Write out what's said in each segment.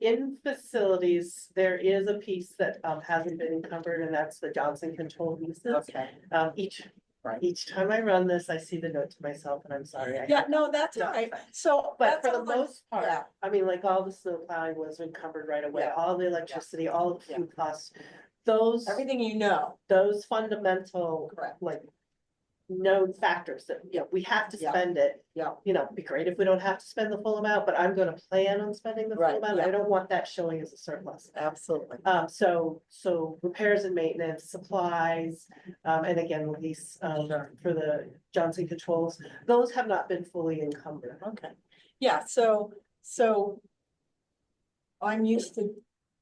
In facilities, there is a piece that um hasn't been encumbered and that's the Johnson control leases. Okay. Um, each, Right. each time I run this, I see the note to myself and I'm sorry. I- Yeah, no, that's No, all right. So. But that's for the all I'm- most yeah. part, I mean, like all the snow plowing was encumbered right away, Yeah. all the electricity, all the Yeah. food costs. Those, Everything you know, those fundamental correct, like known factors that, you know, we have to Yeah. spend it. yeah, You know, it'd be great if we don't have to spend the full amount, but I'm gonna plan on spending the Right, full amount. I yeah. don't want that showing as a surplus. absolutely. Um, so, so repairs and maintenance, supplies, um, and again, lease, um, Sure. for the Johnson controls. Those have not been fully encumbered. Okay, yeah, so, so. I'm used to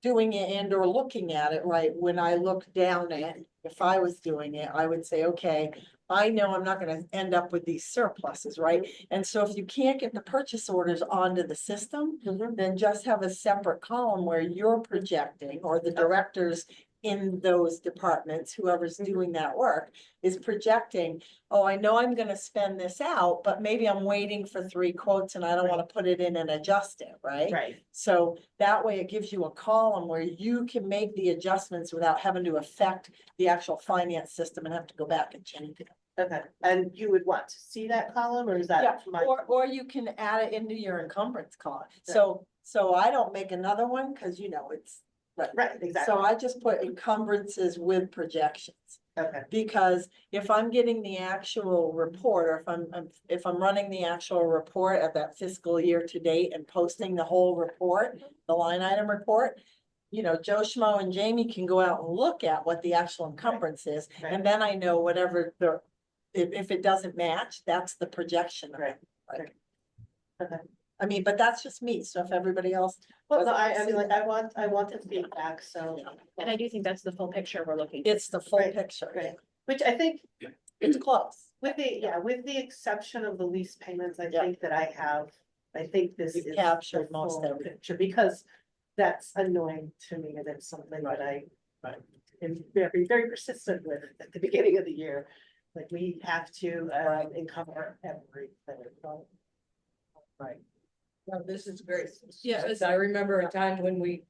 doing it and or looking at it, right, when I look down at, if I was doing it, I would say, okay. I know I'm not gonna end up with these surpluses, right, and so if you can't get the purchase orders onto the system. Mm-hmm. Then just have a separate column where you're projecting or the directors in those departments, whoever's Mhm. doing that work. Is projecting oh, I know I'm gonna spend this out, but maybe I'm waiting for three quotes and I don't wanna put it in and adjust it, right? Right. So that way it gives you a column where you can make the adjustments without having to affect the actual finance system and have to go back and change it. Okay, and you would want to see that column or is Yeah, that my? Or, or you can add it into your encumbrance column. So, so I don't make another one, cause you know, it's. Right, exactly. So I just put encumbrances with projections. Okay, Because if I'm getting the actual report, or if I'm, I'm- if I'm running the actual report of that fiscal year to date and posting the whole report, the line item report. You know, Joe Schmo and Jamie can go out and look at what the actual encumbrance is, and then I know whatever the. If, if it doesn't match, that's the projection. of it, Right, like. right. Okay. I mean, but that's just me, so if everybody else. well, no, I, I mean, like, I want, I want the feedback, so, you know, And I do think that's the full picture we're looking. It's the full Right, picture, right. which I think it's close. with the, yeah, with the exception of the lease payments, I Yeah. think that I have. I think this You've is. the captured most full everything. Picture, because that's annoying to me and it's something that I. Am very, very persistent with at the beginning of the year, like we have to uh Right. encumber everything. Right. No, this is great. Yeah, it's- I remember a time when we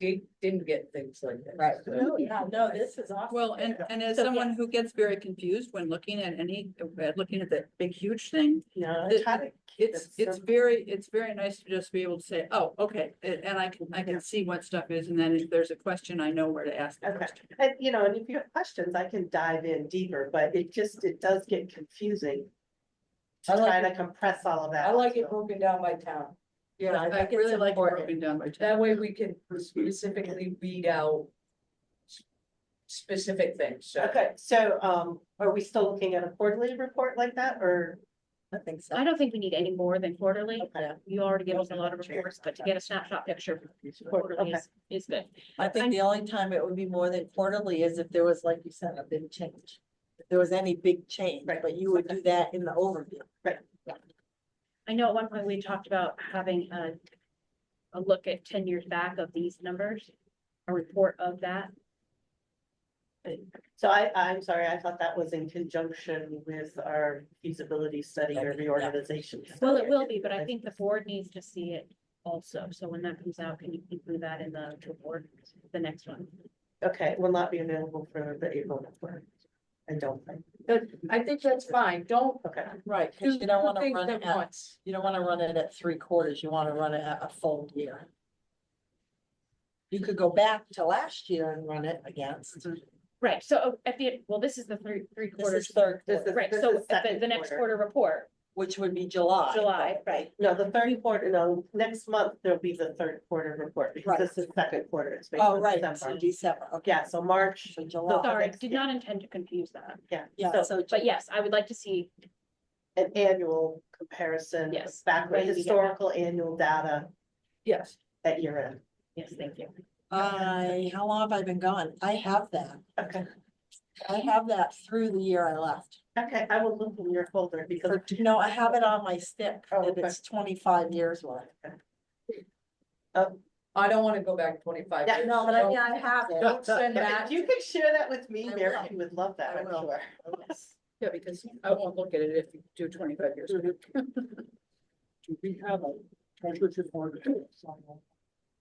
did, didn't get things like that. Right. So- No, yeah, no, this is awesome. Well, and, and as So, someone who gets very confused when looking at any, uh, looking at that big huge thing, No, I The- try to. keep it's, it it's simple. very, it's very nice to just be able to say, oh, okay, and, and I can, I Yeah. can see what stuff is, and then if there's a question, I know where to ask the Okay. question. And, you know, and if you have questions, I can dive in deeper, but it just, it does get confusing. To I like try it. to compress all of that. I like it so. broken down by town. Yeah, I I think it's really like it important. broken down by. time. That way we can specifically weed out s- specific things, so. Okay, so, um, are we still looking at a quarterly report like that, or? I think so. I don't think we need any more than quarterly. Okay. You already give us a lot of reports, but to get a snapshot picture quarterly Okay. is, is good. I think the only time it would be more than quarterly is if there was, like you said, a big change. If there was any big change, Right. but you would do that in the overview. I know at one point we talked about having a, a look at ten years back of these numbers, a report of that. So I, I'm sorry, I thought that was in conjunction with our feasibility study or Okay, yeah. reorganization. Well, it will be, but I think the board needs to see it also. So when that comes out, can you include that in the report, the next one? Okay, it will not be available for the April report, I don't think, I think that's fine, don't okay. Right. do Cause you don't two wanna things run at it at, once. you don't wanna run it at three quarters, you wanna run it at a full year. You could go back to last year and run it against, Right, so oh, at the, well, this is the three, three this is quarters. third This quarter, is- Right, so at the, second the next quarter. quarter report, which would be July. July, right. No, the third quarter, no, next month, there'll be the third quarter report, because Right. this is second quarter, it's based Oh, on right, so December. December, okay, Yeah, so March, so July, Sorry, next did year. not intend to confuse that. yeah, yeah, so so. But yes, I would like to see, an annual comparison. Yes. Back When we get that. historical annual data Yes. at year end. yes, thank you. I, how long have I been gone? I have that. Okay, I have that through the year I left. okay, I will look in your folder because Or, No, I have it on my stick, Oh, and okay. it's twenty-five years worth. I don't wanna go back twenty-five. Yeah, years. No, but I mean, I have it. Don't send if that, you could share that with me, I Mary, will. you would love that, I I'm will. sure. Yeah, because I won't look at it if you do twenty-five years. Do we have a treasurer's report?